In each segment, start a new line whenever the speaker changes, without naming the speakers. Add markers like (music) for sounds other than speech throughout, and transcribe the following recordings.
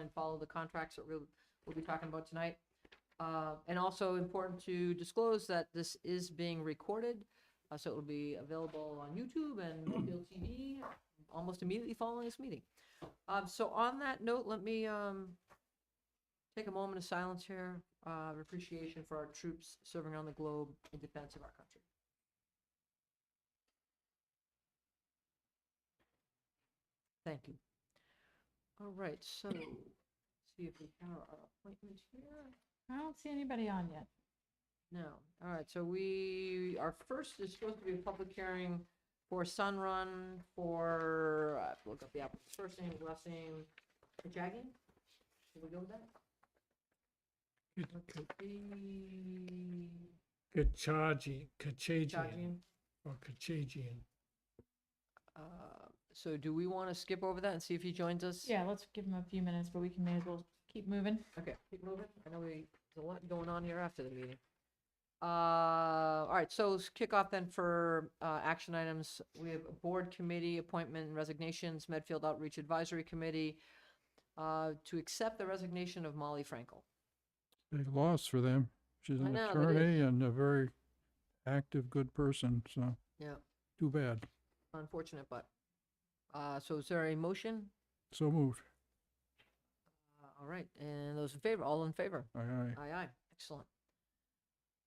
and follow the contracts that we'll, we'll be talking about tonight. Uh, and also important to disclose that this is being recorded, uh, so it will be available on YouTube and Mobile TV almost immediately following this meeting. Um, so on that note, let me, um, take a moment of silence here, uh, of appreciation for our troops serving around the globe in defense of our country. Thank you. All right, so, see if we have our appointment here.
I don't see anybody on yet.
No. All right, so we, our first is supposed to be a public hearing for Sunrun for, uh, look up the applicant's first name, last name, Jaggi? Should we go with that? Let's see,
Kachaji, Kachajian,
Jaggi,
or Kachajian.
uh, So do we want to skip over that and see if he joins us?
Yeah, let's give him a few minutes, but we can may as well keep moving.
Okay, keep moving. I know we, there's a lot going on here after the meeting. Uh, all right, so let's kick off then for, uh, action items. We have a board committee appointment and resignations, Medfield Outreach Advisory Committee, uh, to accept the resignation of Molly Frankel.
big loss for them. She's
I
an
know, that is.
attorney and a very active, good person, so
Yeah.
too bad.
Unfortunate, but, uh, so is there a motion?
So moved.
Uh, All right, and those in favor, all in favor?
Aye, aye.
Aye, aye, excellent.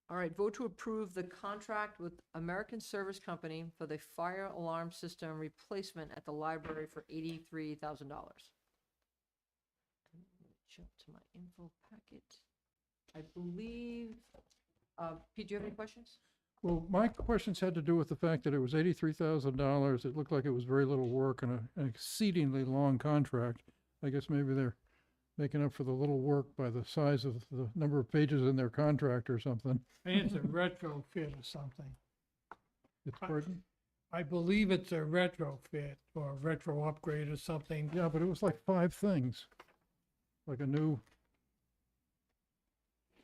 All right, vote to approve the contract with American Service Company for the fire alarm system replacement at the library for eighty-three thousand dollars. Jump to my info packet. I believe, uh, Pete, do you have any questions?
Well, my questions had to do with the fact that it was eighty-three thousand dollars. It looked like it was very little work and a- an exceedingly long contract. I guess maybe they're making up for the little work by the size of the number of pages in their contract or something.
I
(laughs)
think it's a retrofit or something.
It's
I-
pardon?
I believe it's a retrofit or a retro upgrade or something.
Yeah, but it was like five things. Like a new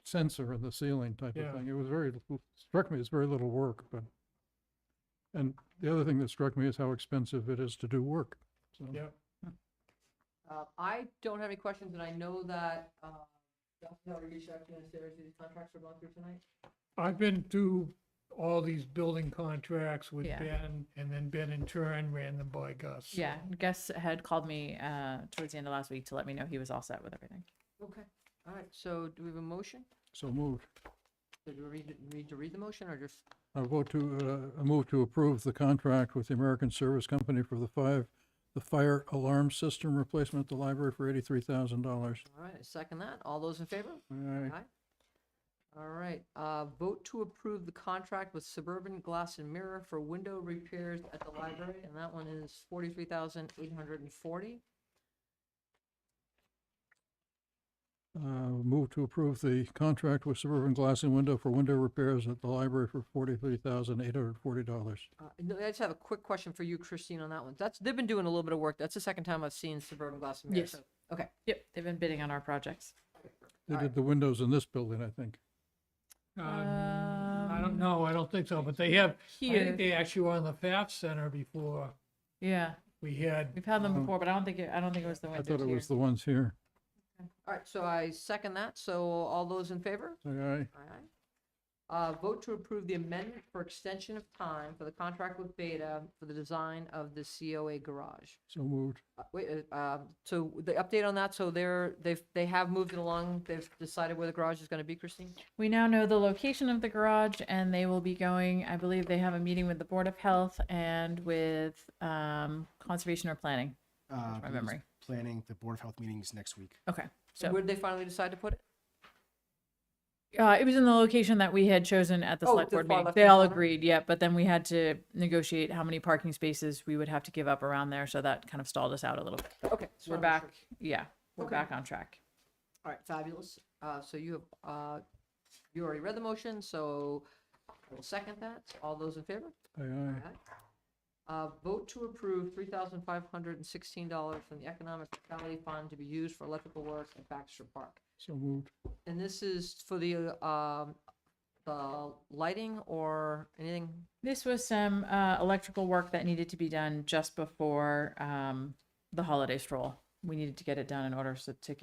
sensor in the ceiling type
Yeah.
of thing. It was very, l- struck me as very little work, but. And the other thing that struck me is how expensive it is to do work. So
Mm.
Yep.
Uh, I don't have any questions, and I know that, uh, Dustin already reached out to you and Sarah, these contracts are going through tonight.
I've been through all these building contracts with
Yeah.
Ben, and then Ben in turn ran them by Gus. so-
Yeah, Gus had called me uh, towards the end of last week to let me know he was all set with everything.
Okay, all right, so do we have a motion?
So moved.
Do we read- need to read the motion or just?
I vote to, uh, I move to approve the contract with the American Service Company for the five, the fire alarm system replacement at the library for eighty-three thousand dollars.
All right, I second that. All those in favor?
Aye.
All right, uh, vote to approve the contract with Suburban Glass and Mirror for window repairs at the library, and that one is forty-three thousand eight hundred and forty.
Uh, move to approve the contract with Suburban Glass and Window for window repairs at the library for forty-three thousand eight hundred forty dollars.
Uh, no, I just have a quick question for you, Christine, on that one. That's, they've been doing a little bit of work. That's the second time I've seen Suburban Glass and Mirror.
Yes.
so- Okay,
Yep, they've been bidding on our projects.
All
They
right.
did the windows in this building, I think.
Um, I
Um,
don't know, I don't think so, but they have, I
Here.
think they actually were on the FAF Center before
Yeah,
we had,
we've had them
Um,
before, but I don't think it, I don't think it was the
I
winter
thought it
here.
was the ones here.
all right, so I second that. So all those in favor?
Say aye.
Aye, aye. Uh, vote to approve the amendment for extension of time for the contract with Beta for the design of the COA garage.
So moved.
Uh, Wait, uh, um, so the update on that, so they're, they've, they have moved it along, they've decided where the garage is gonna be, Christine?
We now know the location of the garage and they will be going, I believe they have a meeting with the Board of Health and with um, Conservation or Planning.
uh,
my
I believe it's
memory.
Planning the Board of Health meetings next week.
Okay, so
Where did they finally decide to put it?
Uh, it was in the location that we had chosen at the
Oh,
select
the
board
far
meeting.
left
They
hand
all
corner?
agreed, yeah, but then we had to negotiate how many parking spaces we would have to give up around there, so that kind of stalled us out a little bit.
Okay. so
We're
I'm not
back,
sure.
yeah, we're
Okay.
back on track.
All right, fabulous. Uh, so you have, uh, you already read the motion, so I will second that. All those in favor?
Aye, aye.
Uh, vote to approve three thousand five hundred and sixteen dollars from the Economic Vitality Fund to be used for electrical work at Baxter Park.
So moved.
And this is for the, um, the lighting or anything?
This was some uh, electrical work that needed to be done just before um, the holiday stroll. We needed to get it done in order so to